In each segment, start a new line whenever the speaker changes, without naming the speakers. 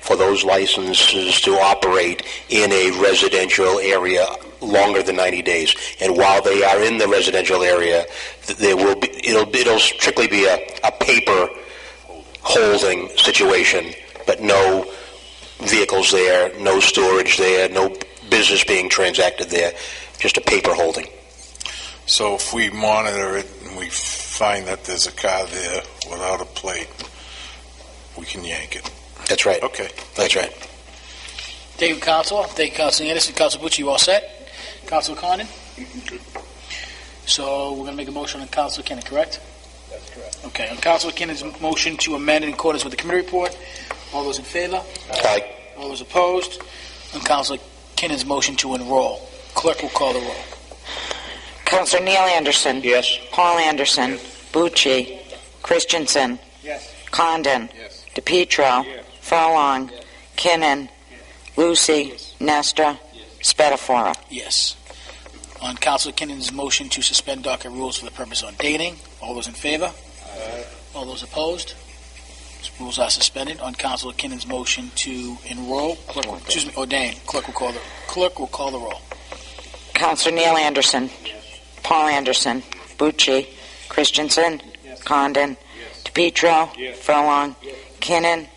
for those licenses to operate in a residential area longer than 90 days. And while they are in the residential area, th- there will be, it'll, it'll strictly be a, a paper holding situation, but no vehicles there, no storage there, no business being transacted there, just a paper holding.
So if we monitor it and we find that there's a car there without a plate, we can yank it.
That's right.
Okay.
That's right.
David Council, thank you, Council Anderson, Council Bucci, you all set? Council Condon? So we're going to make a motion on Council Kinnon, correct?
That's correct.
Okay, on Council Kinnon's motion to amend in accordance with the committee report, all those in favor?
Aye.
All those opposed? On Council Kinnon's motion to enroll, clerk will call the roll.
Counselor Neil Anderson.
Yes.
Paul Anderson. Bucci. Christensen.
Yes.
Condon.
Yes.
DePietro.
Yes.
Furlong. Kinnon. Lucy. Nestor. Spatafora.
Yes. On Council Kinnon's motion to suspend docket rules for the purpose on dating, all those in favor? All those opposed? Rules are suspended. On Council Kinnon's motion to enroll, clerk, will- excuse me, ordain, clerk will call the, clerk will call the roll.
Counselor Neil Anderson. Paul Anderson. Bucci. Christensen. Condon. DePietro.
Yes.
Furlong. Kinnon.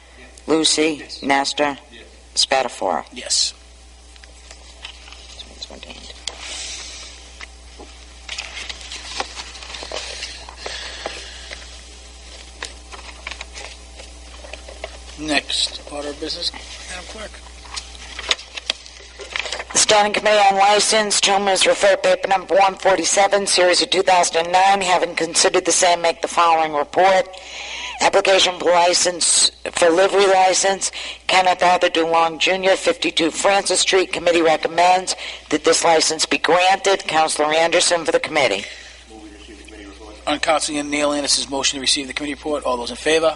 Lucy. Nestor.
Yes.
Spatafora.
Yes.
It's ordained.
Next order of business, Madam Clerk.
The Standing Committee on License, to whom is referred paper number 147, series of 2009, having considered the same, make the following report. Application for license, for livery license, Kenneth Arthur DeLong Jr., 52 Francis Street. Committee recommends that this license be granted. Counselor Anderson for the committee.
On Council Neil Anderson's motion to receive the committee report, all those in favor?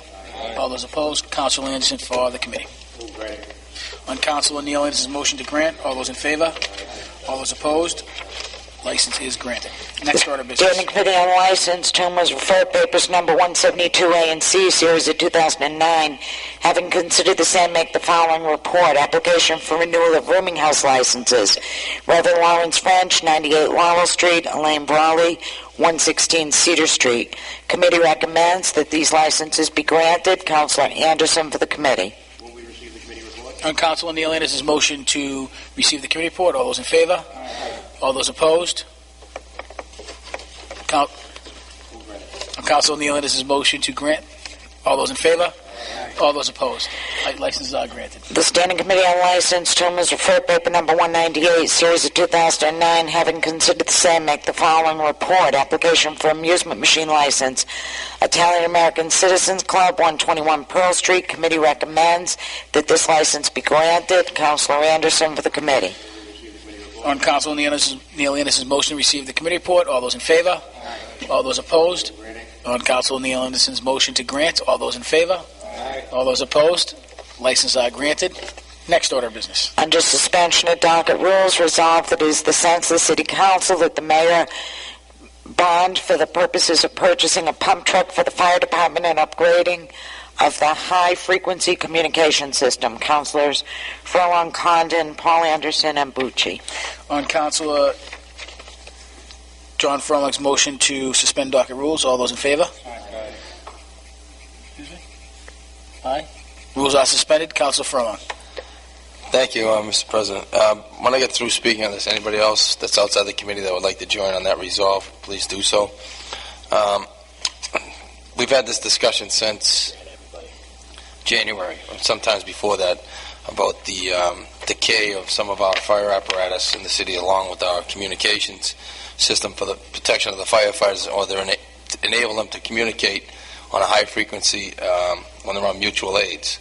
All those opposed? Council Anderson for the committee. On Council Neil Anderson's motion to grant, all those in favor? All those opposed? License is granted. Next order of business.
Standing Committee on License, to whom was referred papers number 172A and C, series of 2009. Having considered the same, make the following report. Application for renewal of rooming house licenses. Reverend Lawrence French, 98 Laurel Street, Elaine Brawley, 116 Cedar Street. Committee recommends that these licenses be granted. Counselor Anderson for the committee.
On Council Neil Anderson's motion to receive the committee report, all those in favor? All those opposed? Coun- On Council Neil Anderson's motion to grant, all those in favor? All those opposed? Li- Licenses are granted.
The Standing Committee on License, to whom is referred paper number 198, series of 2009, having considered the same, make the following report. Application for amusement machine license, Italian American Citizens Club, 121 Pearl Street. Committee recommends that this license be granted. Counselor Anderson for the committee.
On Council Neil Anderson's, Neil Anderson's motion to receive the committee report, all those in favor? All those opposed? On Council Neil Anderson's motion to grant, all those in favor? All those opposed? Licenses are granted. Next order of business.
Under suspension of docket rules, resolved that it is the sense of the city council that the mayor bond for the purposes of purchasing a pump truck for the fire department and upgrading of the high-frequency communication system. Councilors Furlong, Condon, Paul Anderson, and Bucci.
On Councilor John Furlong's motion to suspend docket rules, all those in favor? Aye. Rules are suspended. Councilor Furlong.
Thank you, uh, Mr. President. Uh, When I get through speaking on this, anybody else that's outside the committee that would like to join on that resolve, please do so. Um, We've had this discussion since January, or sometimes before that, about the um, decay of some of our fire apparatus in the city, along with our communications system for the protection of the firefighters, or they're ena- to enable them to communicate on a high frequency um, when they're on mutual aids.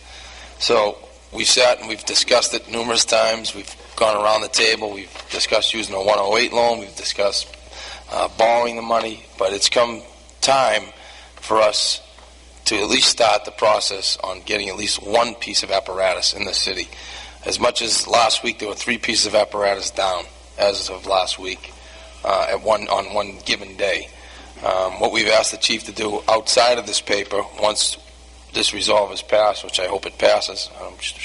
So We've sat and we've discussed it numerous times. We've gone around the table. We've discussed using a 108 loan. We've discussed uh, borrowing the money. But it's come time for us to at least start the process on getting at least one piece of apparatus in the city. As much as last week, there were three pieces of apparatus down as of last week uh, at one on one given day. Um, what we've asked the chief to do outside of this paper, once this resolve is passed, which I hope it passes, I'm